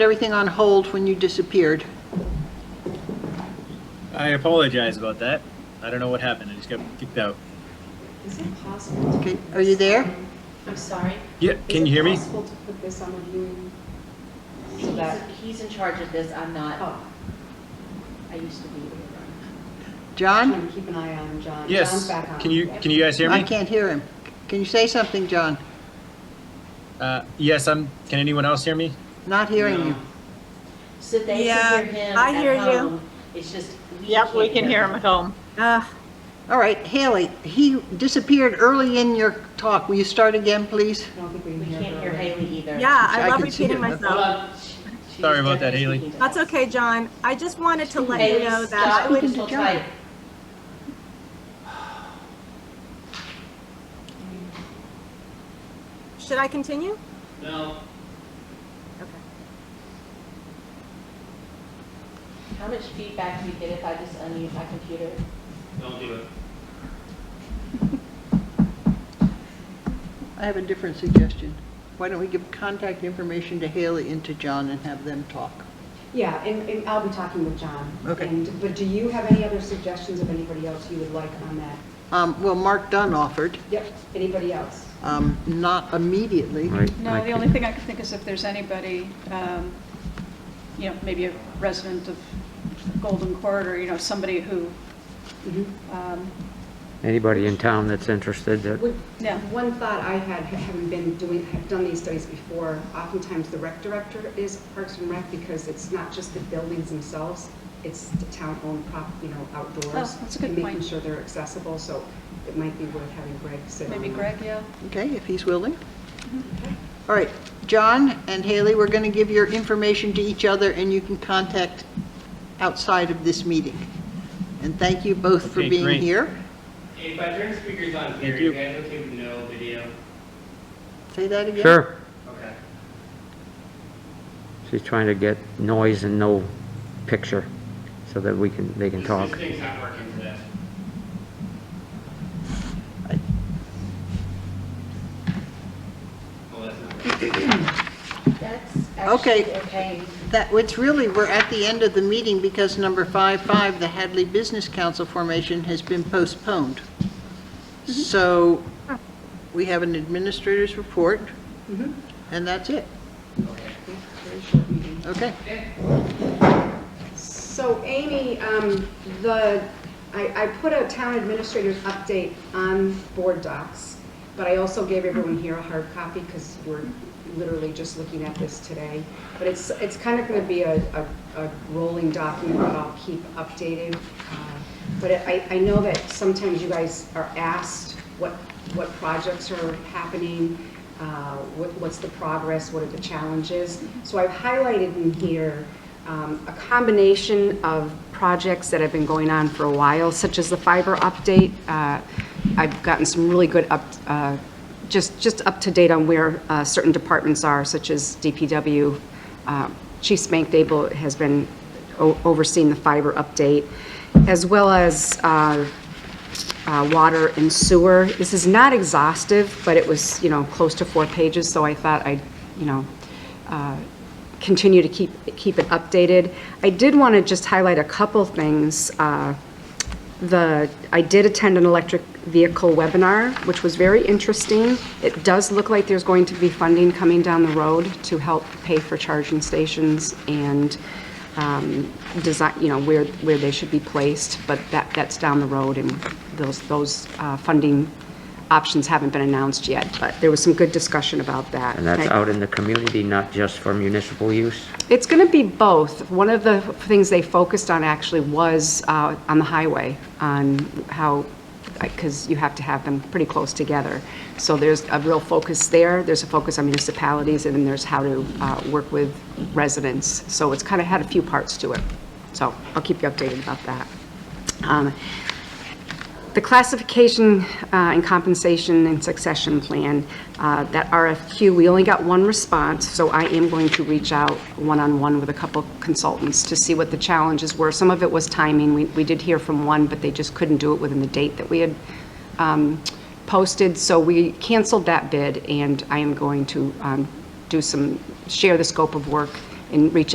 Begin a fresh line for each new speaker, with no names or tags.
everything on hold when you disappeared.
I apologize about that. I don't know what happened. I just got kicked out.
Is it possible? to
Okay,
put
are you
this
there?
on- I'm sorry.
Yeah, can you hear me?
Is it possible to put this on the viewing? So
He's,
that,
he's in charge of this, I'm not,
oh,
I used to be.
John?
trying to keep an eye on John. John's
Yes.
back on.
Can you can you guys hear me?
I can't hear him. Can you say something, John?
Uh, yes, I'm. Can anyone else hear me?
Not hearing you.
So they
Yeah,
can hear him
I hear
at
you.
home, it's just. we
Yep, we
can't
can hear him at home.
Uh,
All right, Haley, he disappeared ewill Will you start again, please?
I don't think we
We
can hear.
can't
her
hear
right
Haley either.
yeah,
I
I love
can see
repeating
it, that's-
Hold
myself.
on. She- she's
Sorry about that,
definitely
Haley.
speaking to
That's
us.
okay, John. I just wanted to let you
Haley,
know that I
stop,
would,
hold tight.
should I continue? No.
How much feedback do you get if I just unmute my computer?
I have a different suggestion. Why don't we give contact information to Haley and to John and have them talk?
Yeah, and, and I'll be talking with John.
Okay.
And, but do you have any other suggestions of anybody else you would like on that?
Um, Well, Mark Dunn offered,
Yep, anybody else?
um, not immediately.
No, the only thing I can think is if there's anybody, um, you know, maybe a resident of Golden Corridor, you know, somebody who,
Mm-hmm.
Mhm.
um,
Anybody in town that's interested that
Would-
Yeah.
One thought I had, ha- having been doing, have done these studies before, oftentimes the rec director is Parks and Rec because it's not just the buildings themselves, it's the town-owned prop, you know, outdoors.
Oh, that's a good
And making
point.
sure they're accessible, so it might be worth having Greg sit on.
maybe
that.
Greg, yeah?
Okay, if he's willing. All right, John and Haley, we're going to give your information to each other, and you can contact outside of this meeting. And thank you both for
Okay,
being
great.
here.
If I turn speakers on
Thank
here,
you.
you guys okay with no video?
Say that again?
Sure,
Okay.
she's trying to get noise and no picture, so that we can, they can
This-
talk.
This thing's not working for this. Well, that's not working.
That's
Okay.
actually okay.
That, it's really, we're at the end of the meeting because number five-five, the Hadley Business Council formation has been postponed. So we have an administrator's report, and that's it.
Very short meeting.
Okay.
So Amy, um, the, I, I put a town administrator's update on board docs, but I also gave everyone here a hard copy because we're literally just looking at this today. But it's, it's kind of going to be a, a, a rolling document that I'll keep updated. Uh, But I, I know that sometimes you guys are asked what, what projects are happening, uh, what, what's the progress, what are the challenges. So I've highlighted in here um, a combination of projects that have been going on for a while, such as the fiber update. Uh, I've gotten some really good up, uh, just, just up to date on where uh, certain departments are, such as DPW. Uh, Chief Spank Dable has been o- overseeing the fiber update, as well as uh, uh, water and sewer. This is not exhaustive, but it was, you know, close to four pages, so I thought I'd, you know, uh, continue to keep, keep it updated. I did want to just highlight a couple things. Uh, The, I did attend an electric vehicle webinar, which was very interesting. It does look like there's going to be funding coming down the road to help pay for charging stations and um, design, you know, where, where they should be placed, but that, that's down the road, and those, those uh, funding options haven't been announced yet, but there was some good discussion about that.
And that's
I-
out in the community, not just for municipal use?
it's going to be both. One of the things they focused on actually was uh, on the highway, on how, because you have to have them pretty close together. So there's a real focus there, there's a focus on municipalities, and then there's how to uh, work with residents. So it's kind of had a few parts to it. So I'll keep you updated about that. Um, the classification uh, and compensation and succession plan, uh, that RFQ, we only got one response, so I am going to reach out one-on-one with a couple consultants to see what the challenges were. Some of it was timing. We we did hear from one, but they just couldn't do it within the date that we had um, posted, so we canceled that bid, and I am going to um, do some, share the scope of work and reach